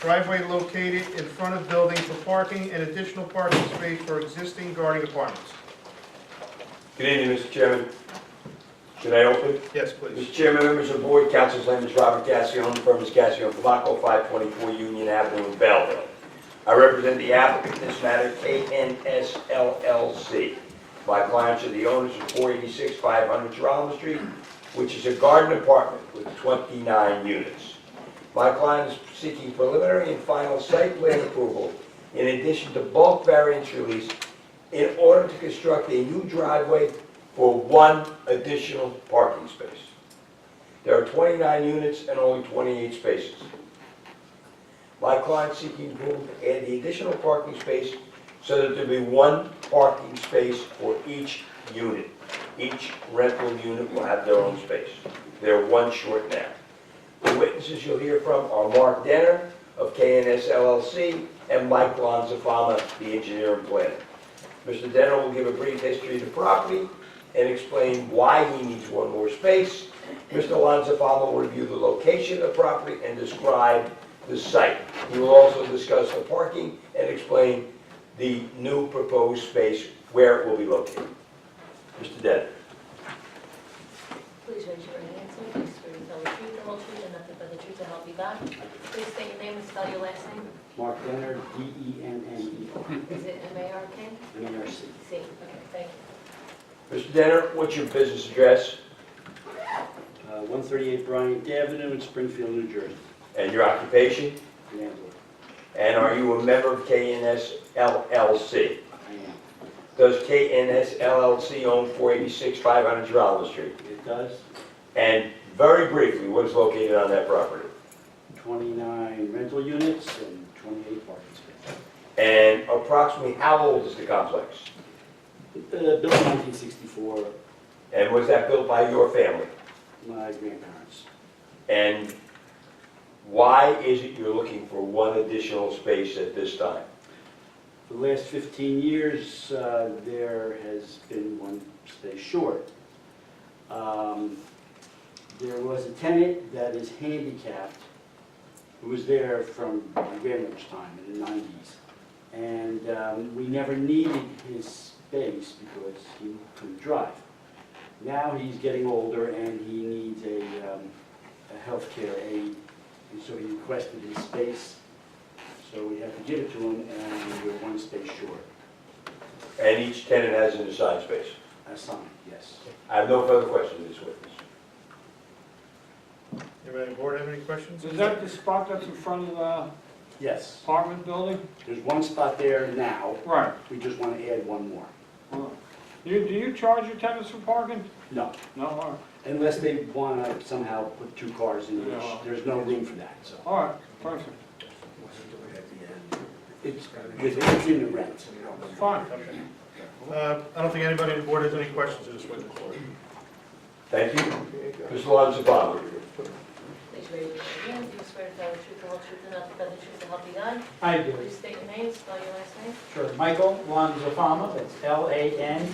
Driveway located in front of building for parking and additional parking space for existing guarding apartments. Good evening, Mr. Chairman. Should I open? Yes, please. Mr. Chairman, members of the board, council's name is Robert Gassion, the firm is Gassion, Flacco, 524 Union Avenue in Belleville. I represent the applicant in this matter, KNS LLC. My clients are the owners of 486 500 Geralmo Street, which is a garden apartment with 29 units. My client is seeking preliminary and final site plan approval in addition to bulk variance release in order to construct a new driveway for one additional parking space. There are 29 units and only 28 spaces. My client seeking approval to add the additional parking space so that there be one parking space for each unit. Each rental unit will have their own space. They're one short now. The witnesses you'll hear from are Mark Denner of KNS LLC and Mike Lonzafama, the engineer and planner. Mr. Denner will give a brief history of the property and explain why he needs one more space. Mr. Lonzafama will review the location of the property and describe the site. He will also discuss the parking and explain the new proposed space, where it will be located. Mr. Denner. Please raise your right hand, so please swear to tell the truth, the whole truth, and nothing but the truth to help you God. Please state your name and spell your last name. Mark E Denner, D-E-N-N-E-R, Is it M-A-R-K? M-A-R-C. C. Okay, thank you. Mr. Denner, what's your business address Uh, 138 Bryant Avenue in Springfield, New Jersey. and your occupation? Landlord, And are you a member of KNS LLC? I am. Does KNS LLC own 486 500 Geraldo Street? It does, And very briefly, what is located on that property? 29 rental units and 28 parking spaces. And approximately how old is the complex? Uh, Built 1964, And was that built by your family? my grandparents. And why is it you're looking for one additional space at this time? For the last 15 years, uh, there has been one space short. Um, There was a tenant that is handicapped, who was there from my grandmother's time in the 90s. And um, we never needed his space because he couldn't drive. Now he's getting older and he needs a um, a healthcare aide, and so he requested his space so we have to give it to them, and we're one space short. And each tenant has an assigned space. Assigned, yes. I have no further questions of this witness. Anybody on board have any questions? Is that the spot that's in front of the Yes. apartment building? There's one spot there now, Right. we just want to add one more. You, do you charge your tenants for parking? No, No, all right, unless they want to somehow put two cars in each, No. there's no room for that, so. all right, perfect, It's within the rent. fine. Uh, I don't think anybody on board has any questions of this witness. Thank you. Mr. Lonzabama. Please raise your right hand, do you swear to tell the truth, the whole truth, and nothing but the truth to help you God? I do. Please state your name, spell your last name. Sure. Michael Lanzafama, that's L-A-N-Z-A-F-A-M-A.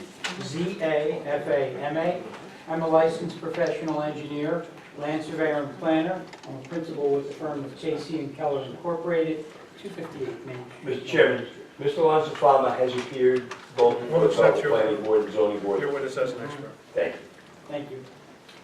I'm a licensed professional engineer, land surveyor and planner. I'm a principal with the firm of Casey and Keller Incorporated, 258 Main Street. Mr. Chairman, Mr. Lonzafama has appeared both Well, before it's not the your- planning board and zoning board. Your witness has an expert. Thank you. Thank you.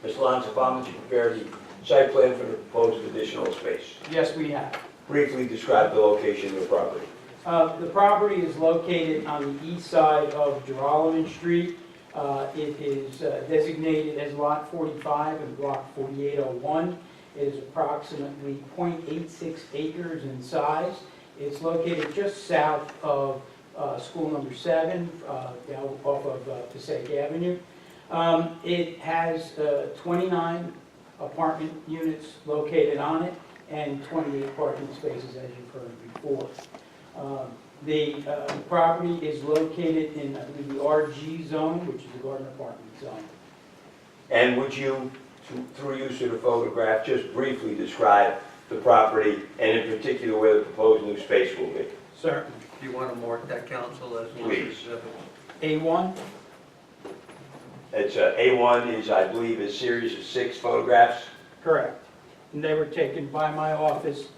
Mr. Lonzafama, did you prepare the site plan for the proposed additional space? Yes, we have. Briefly describe the location of the property. Uh, The property is located on the east side of Geralman Street. Uh, It is uh, designated as Lot 45 and Block 4801. It is approximately .86 acres in size. It's located just south of uh, School Number 7, uh, down off of uh, Passaic Avenue. Um, It has uh, 29 apartment units located on it and 28 parking spaces, as you've heard before. Um, The uh, property is located in, I believe, the RG zone, which is the garden apartment zone. And would you, through- through use of the photograph, just briefly describe the property and in particular where the proposed new space will be? Sir. Do you want to mark that council as one of Please. the exhibits? A1? It's, uh, A1 is, I believe, a series of six photographs. Correct. And they were taken by my office